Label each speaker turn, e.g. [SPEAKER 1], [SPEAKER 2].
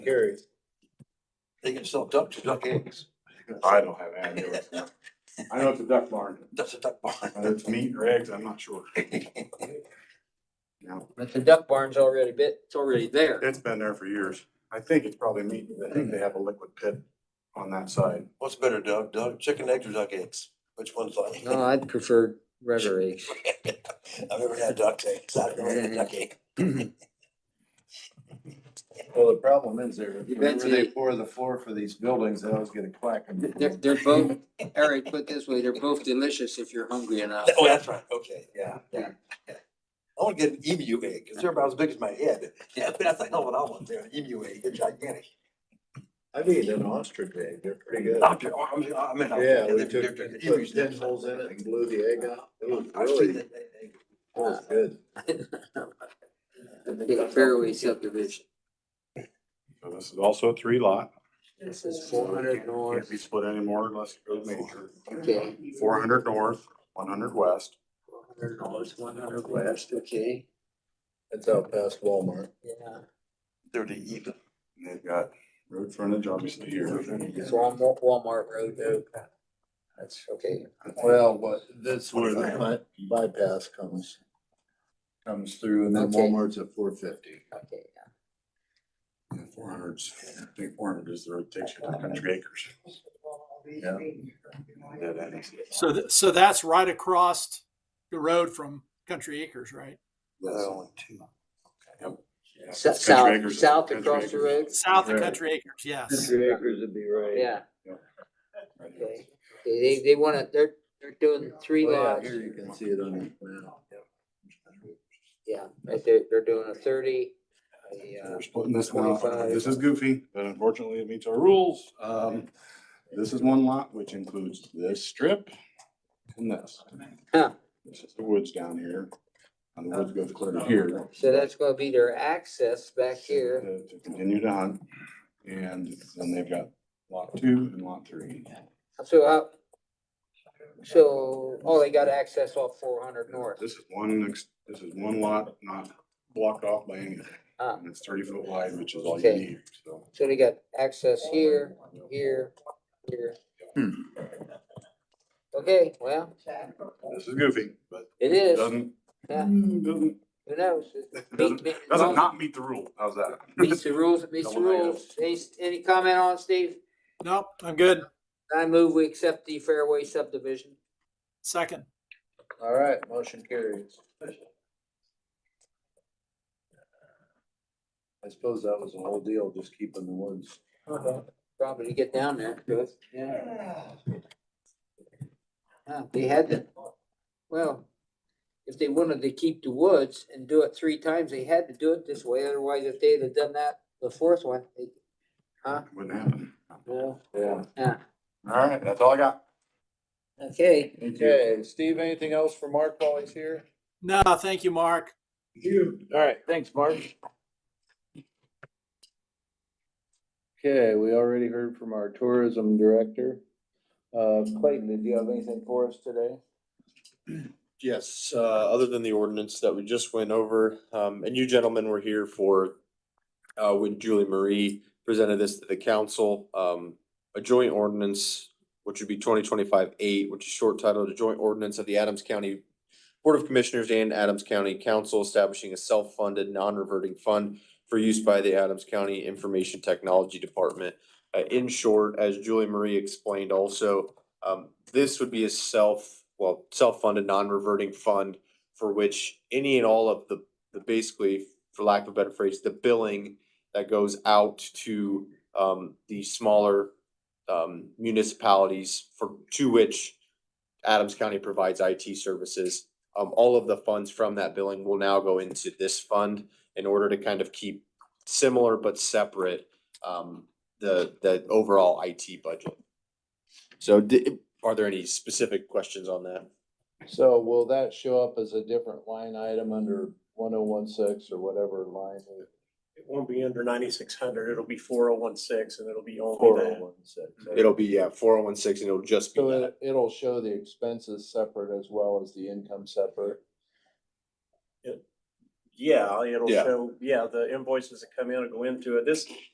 [SPEAKER 1] Carries.
[SPEAKER 2] They can sell duck to duck eggs.
[SPEAKER 3] I don't have any. idea. I know it's a duck barn,
[SPEAKER 2] That's a duck
[SPEAKER 3] whether
[SPEAKER 2] barn.
[SPEAKER 3] it's meat or eggs, I'm not sure. No,
[SPEAKER 1] But the duck barn's already bit, it's already there.
[SPEAKER 3] it's been there for years. I think it's probably meat, but I think they have a liquid pit on that side.
[SPEAKER 2] What's better, duck, duck, chicken eggs or duck eggs? Which one's like?
[SPEAKER 1] No, I'd prefer rubber eggs.
[SPEAKER 2] I've never had duck eggs. I've never had a duck egg.
[SPEAKER 4] Well, the problem is there,
[SPEAKER 1] You
[SPEAKER 4] whenever
[SPEAKER 1] bet
[SPEAKER 4] they
[SPEAKER 1] you-
[SPEAKER 4] pour the floor for these buildings, they always get a quack. and-
[SPEAKER 1] They're, they're both, Eric, put this way, they're both delicious if you're hungry enough.
[SPEAKER 2] Oh, that's right. Okay, yeah, yeah.
[SPEAKER 1] Yeah.
[SPEAKER 2] I want to get an emu egg because they're about as big as my head. Yeah, but that's like, no, what I want there, an emu egg. They're gigantic.
[SPEAKER 4] I've eaten an ostrich egg, they're pretty good.
[SPEAKER 2] Doctor, oh, I'm, I mean, I'm.
[SPEAKER 4] Yeah, we
[SPEAKER 2] they're-
[SPEAKER 4] took,
[SPEAKER 2] they're- they're-
[SPEAKER 4] put
[SPEAKER 2] emus, they're-
[SPEAKER 4] pin holes in it and blew the egg out. It was
[SPEAKER 2] I've seen
[SPEAKER 4] really,
[SPEAKER 2] that egg.
[SPEAKER 4] was good.
[SPEAKER 1] Yeah, Fairway subdivision.
[SPEAKER 3] So this is also a three lot.
[SPEAKER 1] This is four hundred
[SPEAKER 3] Can't be
[SPEAKER 1] north,
[SPEAKER 3] split anymore unless it goes major.
[SPEAKER 1] okay,
[SPEAKER 3] Four hundred north, one hundred west.
[SPEAKER 1] four hundred north, one hundred west, okay,
[SPEAKER 4] It's out past Walmart.
[SPEAKER 1] yeah.
[SPEAKER 2] They're the evil.
[SPEAKER 3] And they've got road frontage obviously here.
[SPEAKER 1] It's Walmart, Walmart Road, though. That's okay.
[SPEAKER 4] Well, but that's where the bi- bypass comes, comes through and then
[SPEAKER 1] Okay.
[SPEAKER 4] Walmart's at four fifty.
[SPEAKER 1] Okay,
[SPEAKER 3] Four hundreds, I think four hundred is the road takes you to country acres.
[SPEAKER 4] Yeah.
[SPEAKER 3] Yeah, that is-
[SPEAKER 5] So, th- so that's right across the road from Country Acres, right?
[SPEAKER 2] They're only two.
[SPEAKER 1] yeah.
[SPEAKER 3] Yeah,
[SPEAKER 1] South,
[SPEAKER 3] it's country acres.
[SPEAKER 1] south
[SPEAKER 3] Country
[SPEAKER 1] across the
[SPEAKER 3] acres.
[SPEAKER 1] road,
[SPEAKER 5] South of
[SPEAKER 3] Right.
[SPEAKER 5] Country Acres, yes.
[SPEAKER 4] acres would be right.
[SPEAKER 1] yeah,
[SPEAKER 3] Right here.
[SPEAKER 1] okay. They, they wanna, they're, they're doing three
[SPEAKER 4] Well, yeah,
[SPEAKER 1] lots.
[SPEAKER 4] here you can see it on the map.
[SPEAKER 1] Yeah, right, they're, they're doing a thirty, a, uh,
[SPEAKER 3] We're splitting this one off.
[SPEAKER 1] 25.
[SPEAKER 3] This is goofy, but unfortunately it meets our rules. Um, this is one lot, which includes this strip and this.
[SPEAKER 1] Huh.
[SPEAKER 3] This is the woods down here. And the woods goes clear to here.
[SPEAKER 1] so that's gonna be their access back here.
[SPEAKER 3] To to continue to hunt. And then they've got lot two and lot three.
[SPEAKER 1] So, uh, so, oh, they got access off four hundred north.
[SPEAKER 3] This is one, ex- this is one lot, not blocked off by anything.
[SPEAKER 1] Ah.
[SPEAKER 3] And it's thirty foot wide, which is all you
[SPEAKER 1] Okay.
[SPEAKER 3] need, so.
[SPEAKER 1] So they got access here, here, here. Okay, well,
[SPEAKER 3] This is goofy, but it
[SPEAKER 1] it is,
[SPEAKER 3] doesn't, mm,
[SPEAKER 1] Yeah.
[SPEAKER 3] doesn't,
[SPEAKER 1] who knows?
[SPEAKER 3] doesn't, doesn't not meet the rule. How's that?
[SPEAKER 1] Meets the rules, meets the rules. Any, any comment on it, Steve?
[SPEAKER 5] Nope, I'm good.
[SPEAKER 1] I move we accept the fairway subdivision.
[SPEAKER 5] Second.
[SPEAKER 4] All right, motion carries. I suppose that was the whole deal, just keeping the woods.
[SPEAKER 1] Uh-huh. Probably to get down there, good, yeah. Yeah, They had to, well, if they wanted to keep the woods and do it three times, they had to do it this way, otherwise if they'd have done that, the fourth one, they,
[SPEAKER 3] Wouldn't happen.
[SPEAKER 1] well,
[SPEAKER 4] Yeah.
[SPEAKER 1] yeah.
[SPEAKER 3] All right, that's all I got.
[SPEAKER 1] Okay,
[SPEAKER 4] Okay, Steve, anything else for Mark while he's here?
[SPEAKER 5] No, thank you, Mark.
[SPEAKER 4] All right, thanks, Mark. Okay, we already heard from our tourism director. Uh, Clayton, did you have anything for us today?
[SPEAKER 6] Yes, uh, other than the ordinance that we just went over, um, and you gentlemen were here for, uh, when Julie Marie presented this to the council, um, a joint ordinance, which would be twenty twenty-five eight, which is short titled, a joint ordinance of the Adams County Board of Commissioners and Adams County Council establishing a self-funded, non-reverting fund for use by the Adams County Information Technology Department. Uh, in short, as Julie Marie explained also, um, this would be a self, well, self-funded, non-reverting fund for which any and all of the, the basically, for lack of a better phrase, the billing that goes out to, um, the smaller, um, municipalities for, to which Adams County provides IT services. Um, all of the funds from that billing will now go into this fund in order to kind of keep similar but separate, um, the, the overall IT budget. So di- are there any specific questions on that?
[SPEAKER 4] So will that show up as a different line item under one oh one six or whatever line?
[SPEAKER 7] It won't be under ninety-six hundred, it'll be four oh one six and it'll be
[SPEAKER 4] Four
[SPEAKER 7] only
[SPEAKER 4] oh
[SPEAKER 7] that.
[SPEAKER 4] one six.
[SPEAKER 6] It'll be, yeah, four oh one six and it'll just be
[SPEAKER 4] So uh,
[SPEAKER 6] that.
[SPEAKER 4] it, it'll show the expenses separate as well as the income separate.
[SPEAKER 7] Yeah, it'll
[SPEAKER 6] Yeah.
[SPEAKER 7] show, yeah, the invoices that come in will go into it. This,